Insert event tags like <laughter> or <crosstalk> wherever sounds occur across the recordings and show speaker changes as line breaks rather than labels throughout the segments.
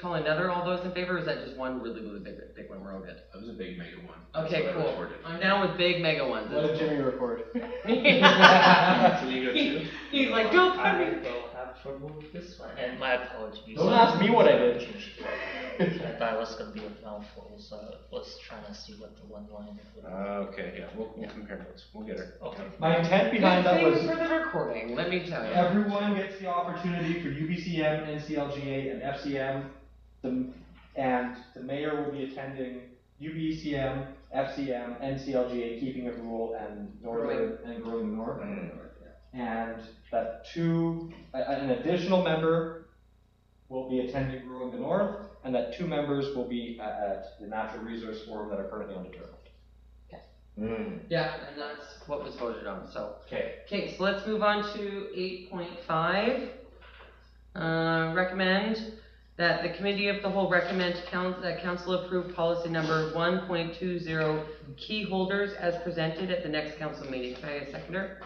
call another, all those in favor, or is that just one really, really big, big one, we're all good?
That was a big mega one. That's
Okay,
what I
cool,
recorded.
I'm down with big mega ones.
Let
That's
Jimmy record.
cool.
So you go two.
<laughs> He's like, don't put
I
me.
will have trouble with this one, and my apologies.
Don't ask me what I did.
I thought it was gonna be a mouthful, so I was trying to see what the one line would.
Uh, okay, yeah, we'll, we'll compare those, we'll get her.
Okay.
<laughs> My intent
Good
behind that was
thing for the recording, let me tell you.
everyone gets the opportunity for UBCM, NCLGA, and FCM. The, and the mayor will be attending UBCM, FCM, NCLGA, Keeping It Rural, and Northern, and Growing North. And that two, a- an additional member will be attending Growing the North, and that two members will be at, at the Natural Resource Forum that are currently undetermined.
Mm.
Yeah, and that's what was voted on, so.
Okay,
Okay, so let's move on to eight point five. Uh, recommend that the committee of the whole recommend council, that council approve policy number one point two zero key holders as presented at the next council meeting. Can I get a seconder?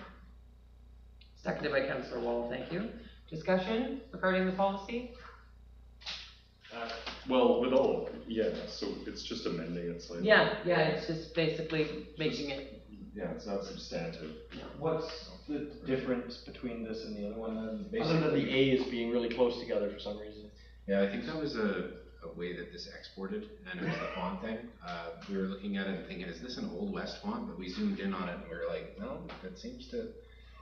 Seconded by Councilor Wall, thank you. Discussion regarding the policy?
Uh, Well, with all, yeah, so it's just amending it slightly.
Yeah, yeah, it's just basically making it,
Yeah, it's not substantive.
What's the difference between this and the other one? then? Other than
Basically-
the A's being really close together for some reason.
Yeah, I think that was a, a way that this exported, and it was the font thing. Uh, we were looking at it and thinking, is this an Old West font? But we zoomed in on it and we were like, no, that seems to,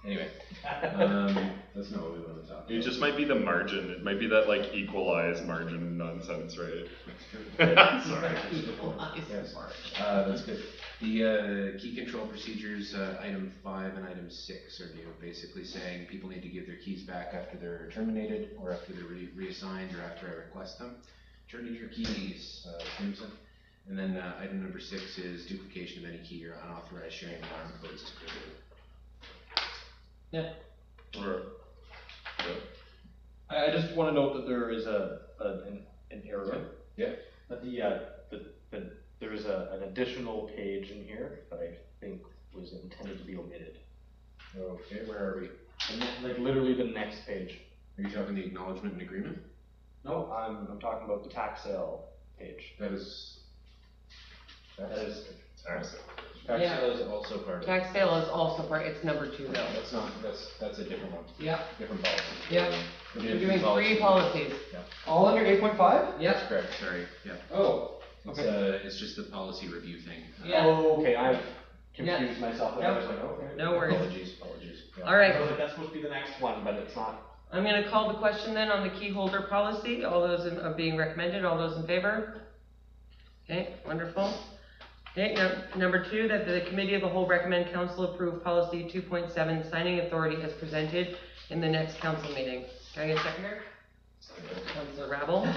anyway. Um, that's not what we wanted to talk about.
It just might be the margin, it might be that like equalized margin nonsense, right? Sorry.
Yeah, sorry. Uh, that's good. The, uh, key control procedures, uh, item five and item six are new, basically saying people need to give their keys back after they're terminated, or after they're re- reassigned, or after I request them. Turn in your keys, uh, Simpson. And then, uh, item number six is duplication of any key or unauthorized sharing of armed codes is prohibited.
Or-
I, I just wanna note that there is a, a, an, an error.
Yeah.
That the, uh, the, the, there is a, an additional page in here that I think was intended to be omitted.
Okay, where are we?
And that- like literally the next page.
Are you talking the acknowledgement and agreement?
No, I'm, I'm talking about the tax sale page.
That is.
That is,
Sorry.
Tax
Yeah.
sale is also part of it.
tax sale is also part, it's number two
No,
though.
that's not, that's, that's a different one,
Yep,
different policy.
Yep.
We're
we're
doing
doing three policies.
all under eight point five?
Yep,
That's correct, sorry, yeah.
Oh,
It's,
Okay.
uh, it's just the policy review thing. Uh,
Yeah.
Oh, okay, I've
Yeah.
confused myself, and I was like, okay.
no worries.
Apologies, apologies. yeah.
All right,
I was like, that's supposed to be the next one, but it's not.
I'm gonna call the question then on the key holder policy, all those in, uh, being recommended, all those in favor? Okay, wonderful. Okay, num- number two, that the committee of the whole recommend council approve policy two point seven, signing authority as presented in the next council meeting. Can I get a seconder? Councilor Rabble,
<laughs>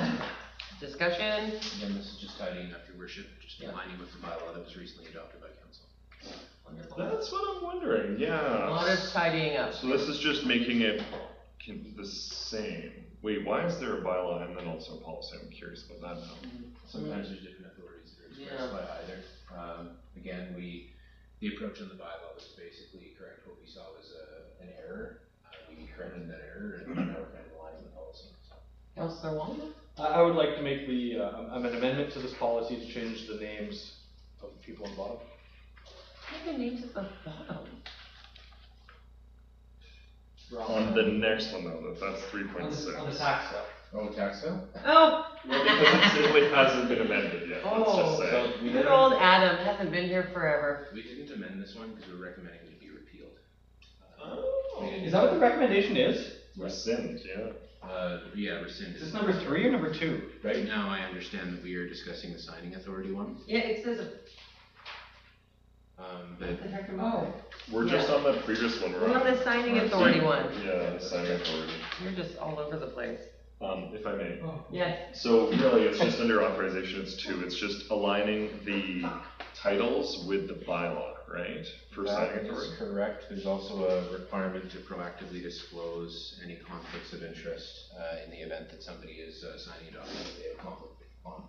discussion,
Again, this is just tidying up your worship, just
Yeah.
aligning with the bylaw that was recently adopted by council.
wonderful.
That's what I'm wondering,
A lot
yeah.
of tidying up.
So this is just making it con- the same. Wait, why is there a bylaw and then also a policy? I'm curious about that now.
Sometimes there's different authorities that are expressed by either. Um, again, we, the approach on the bylaw was basically correct what we saw was a, an error. Uh, we corrected that error and now we're kind of aligning the policy.
Councilor Wong?
I, I would like to make the, uh, um, an amendment to this policy to change the names of the people on the bottom.
I have the names at the bottom.
On the next one though, that- that's three point six.
tax
Oh, tax bill?
Oh,
Well, because it simply hasn't been amended yet, let's just
Oh.
say.
we
good old Adam, hasn't been here forever.
We didn't amend this one because we're recommending it be repealed. Uh,
Oh.
Is that what the recommendation is?
Rescind, yeah.
Uh, yeah, rescinded.
Is this number three or number two?
Right now, I understand that we are discussing the signing authority one,
Yeah, it says
um, but
Oh,
We're just on that previous one, we're
we're on
on.
the signing authority one.
Yeah, signing authority.
You're just all over the place.
Um, if I may.
Yes.
So really, it's just under authorization, it's two, it's just aligning the titles with the bylaw, right? For
that
signing
is
authority.
correct. There's also a requirement to proactively disclose any conflicts of interest, uh, in the event that somebody is, uh, signing a document that they have conflict on.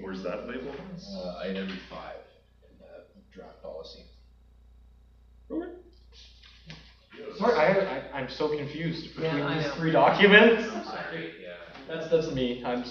Where's that label?
Uh, item five, in the draft policy.
Sorry, I, I, I'm so confused
Yeah,
between
I
these
know.
three documents.
I'm sorry, yeah.
That's, that's me, I'm